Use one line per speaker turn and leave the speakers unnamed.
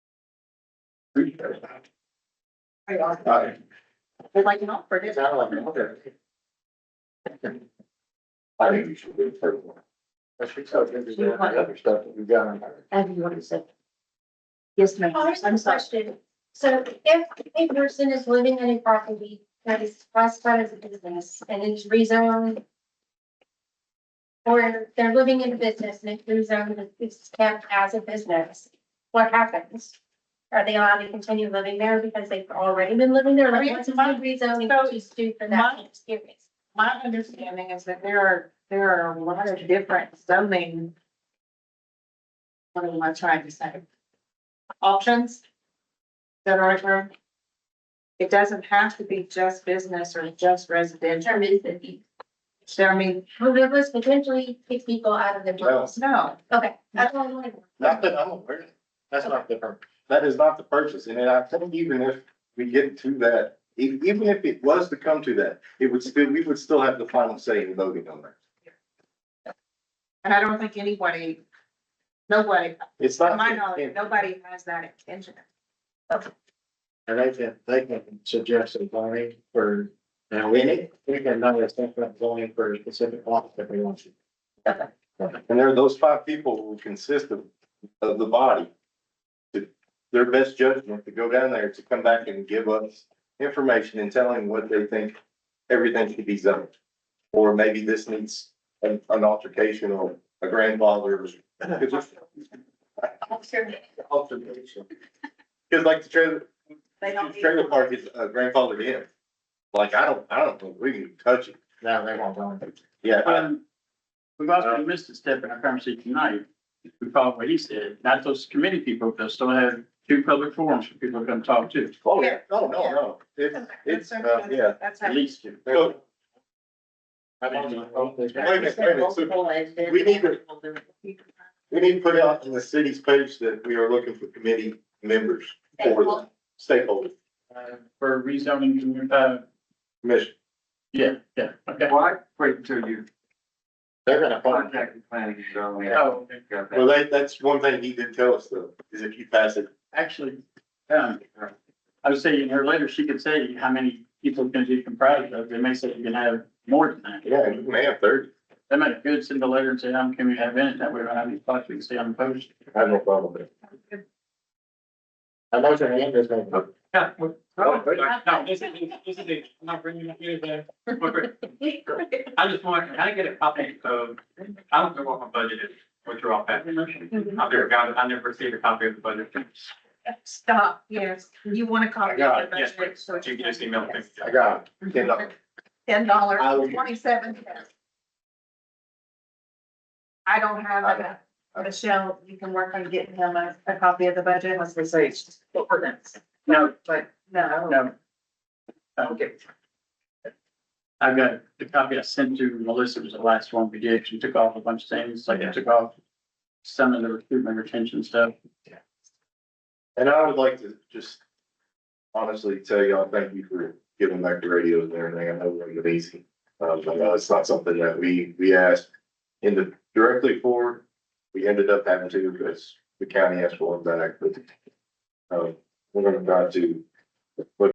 Aye.
Would like to help for this.
Now, I'm older. I think you should wait for one. I should tell you there's the other stuff that we got on there.
And you want to say? Yes, ma'am.
Oh, there's
I'm
one
sorry.
question. So if a person is living in a property that is classified as a business and is rezoned. Or they're living in a business and it's rezoned, it's kept as a business, what happens? Are they allowed to continue living there because they've already been living there? Like, what's the rezoning to do for that experience?
My understanding is that there are, there are a lot of different zoning. What am I trying to say? Options. That are there. It doesn't have to be just business or just residential.
Determines that the,
So I mean,
well, there was potentially kick people out of the business.
no,
Okay, that's all I wanted.
Not that I'm aware of. That's not the, pur- that is not the purchase. And I think even if we get to that, e- even if it was to come to that, it would still, we would still have the final say in voting on that.
and I don't think anybody, nobody,
It's
to
not.
my knowledge, nobody has that intention.
And they can, they can suggest a zoning for, now, we need, we can not just think about zoning for a specific office if we want to.
And there, those five people who consist of, of the body. to- Their best judgment to go down there to come back and give us information and telling what they think everything should be zoned. Or maybe this needs an, an altercation or a grandfather. Altercation. Cause like the trailer,
They don't need-
trailer park is uh, grandfathered in. Like, I don't, I don't think we can touch it.
No, they won't go into.
Yeah. I-
Um, We've also missed a step in our conversation tonight. If We follow what he said, not those committee people, they'll still have two public forums for people to come talk to,
Oh, yeah, no, no, no. It's, it's, uh, yeah.
That's how.
at least two.
So,
I mean,
Wait a minute, wait a minute. So we need to- We need to put out on the city's page that we are looking for committee members for the stakeholder
uh, For rezoning, uh,
commission.
yeah, yeah, okay.
Why wait until you
They're gonna find,
contact the planning zone?
Oh,
Well, that, that's one thing he did tell us though, is if you pass it,
actually, um, I was saying her later, she could say how many people can be comprised of, they may say you can have more than that.
yeah, you may have thirty.
They might good send a letter and say, how many can we have in it, that way we don't have any thoughts, we can stay unopposed.
I have no problem with it.
I know your name is going to.
Yeah. No, this is, this is, it. I'm not bringing it here today.
I just want, can I get a copy of, I don't know what my budget is, what you're all packing. I've never got, it. I never received a copy of the budget.
Stop, yes, you want to copy.
I got it,
the
yes,
budget, so
But you can just email me.
I got it. Ten dollars.
Ten dollars,
I will-
twenty-seven cents. I don't have a, Michelle, you can work on getting him a, a copy of the budget. Let's say. Ordinance.
No.
But, no.
No. Okay. I've got the copy I sent to Melissa was the last one we did. She took off a bunch of things, like I took off some of the recruitment retention stuff.
And I would like to just honestly tell y'all, thank you for giving back the radios and everything. I know it was easy. Um, I know it's not something that we, we asked in the, directly for. We ended up having to uh, because the county asked for one back, but um, we're gonna try to look